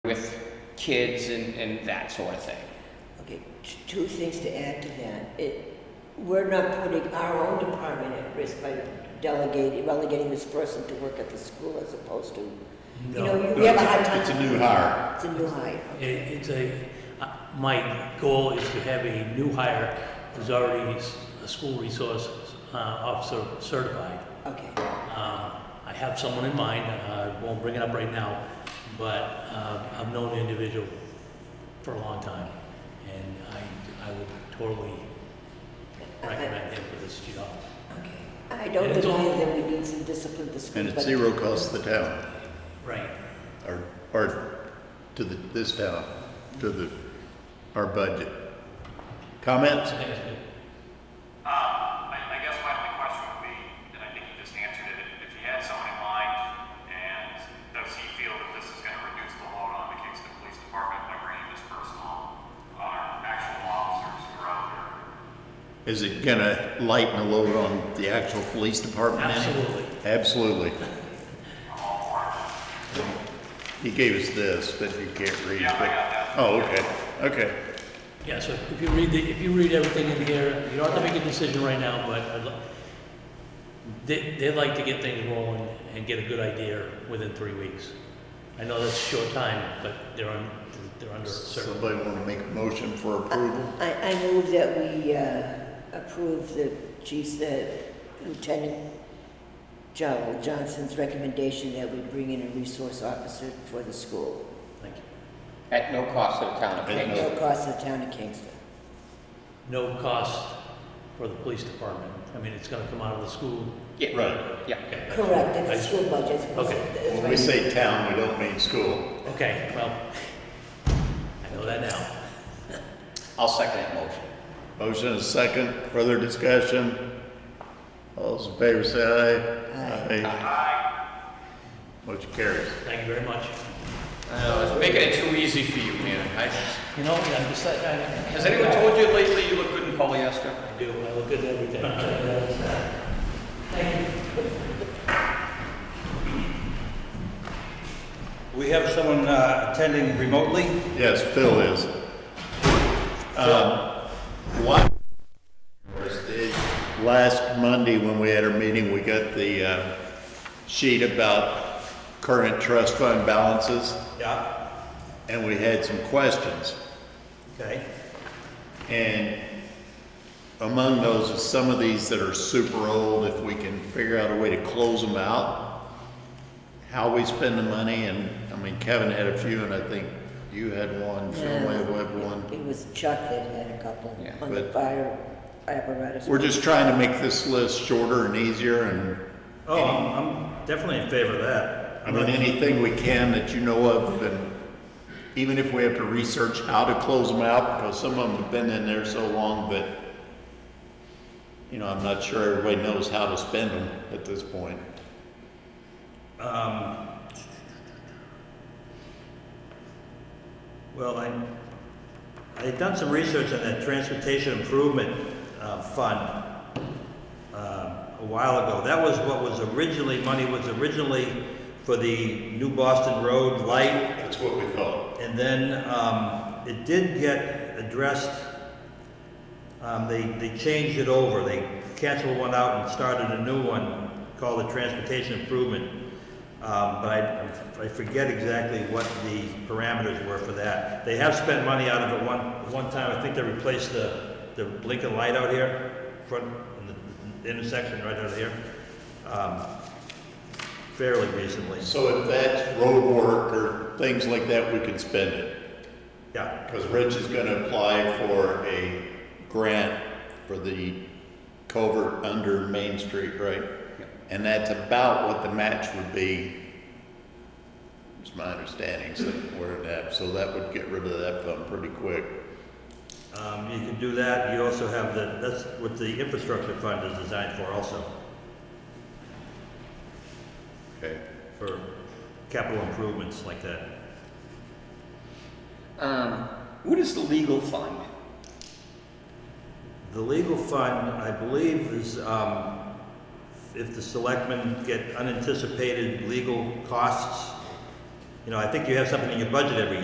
kids and, and that sort of thing. Okay, t- two things to add to that. It, we're not putting our own department at risk by delegating, relegating this person to work at the school as opposed to, you know, you- we have a hard time. It's a new hire. It's a new hire. It, it's a, uh, my goal is to have a new hire who's already s- a school resource uh, officer certified. Okay, Um, I have someone in mind, uh, I won't bring it up right now, but uh, I've known the individual for a long time, and I, I would totally recommend him for this job. okay. I don't And it's deny all- that we need some discipline to school, And it's but- zero cost to the town, Right, or, or to the, this town, to the, our budget. Comments? I think it's good. Um, I, I guess my only question would be, and I think you just answered it, if you had someone in mind, and does he feel that this is gonna reduce the load on the Kingston Police Department by bringing this person on, our actual officers who are out there? Is it gonna lighten the load on the actual police department? any? Absolutely. Absolutely. He gave us this, but you can't read. Yeah, I but- got that. Oh, okay, okay. Yeah, so if you read the, if you read everything in here, you don't have to make a decision right now, but I'd li- they, they'd like to get things rolling and get a good idea within three weeks. I know that's a short time, but they're on, they're under certain. Somebody wanna make a motion for approval? I, I move that we uh, approve the chief's, uh, Lieutenant Joe Johnson's recommendation that we bring in a resource officer for the school. Thank you. At no cost to the town of At no- Kingston. No cost to the town of Kingston. No cost for the police department. I mean, it's gonna come out of the school. Yeah. Right. Yeah. Okay. Correct, it's I- the school budget. Okay. That's When right. we say town, we don't mean school. Okay, well, I know that now. I'll second that motion. Motion is second, further discussion. All those in favor say aye. Aye. Motion carries. Thank you very much. I was making it too easy for you, man. I- You know, I'm just, I, I. Has anyone told you lately you look good in polyester? I do, I look at everything. Thank you. We have someone uh, attending remotely. Yes, Phil is. Um, What? Last Monday, when we had our meeting, we got the uh, sheet about current trust fund balances, Yeah, and we had some questions. okay. And among those is some of these that are super old, if we can figure out a way to close them out, how we spend the money, and, I mean, Kevin had a few, and I think you had one, Phil Yeah. may have had one. It was Chuck that had a couple Yeah. on the But- fire apparatus. We're just trying to make this list shorter and easier and, Oh, I'm I'm definitely in favor of that. I mean, anything we can that you know of and even if we have to research how to close them out, because some of them have been in there so long that, you know, I'm not sure everybody knows how to spend them at this point. Um, Well, I, I had done some research on that Transportation Improvement uh, Fund um, a while ago. That was what was originally, money was originally for the New Boston Road light That's what we thought. And then um, it did get addressed. Um, They, they changed it over. They canceled one out and started a new one called the Transportation Improvement. Um, But I, I forget exactly what the parameters were for that. They have spent money out of it one, one time. I think they replaced the, the blinking light out here, front, in the intersection right out here, um, fairly recently. So if that's road work or things like that, we can spend it. Yeah, Because Rich is gonna apply for a grant for the covert under Main Street, right? And that's about what the match would be, is my understanding, so where it at, so that would get rid of that fund pretty quick. Um, you can do that, you also have the, that's what the infrastructure fund is designed for also, Okay. for capital improvements like that. Um, what is the legal fund? The legal fund, I believe, is, um, if the selectmen get unanticipated legal costs, you know, I think you have something in your budget every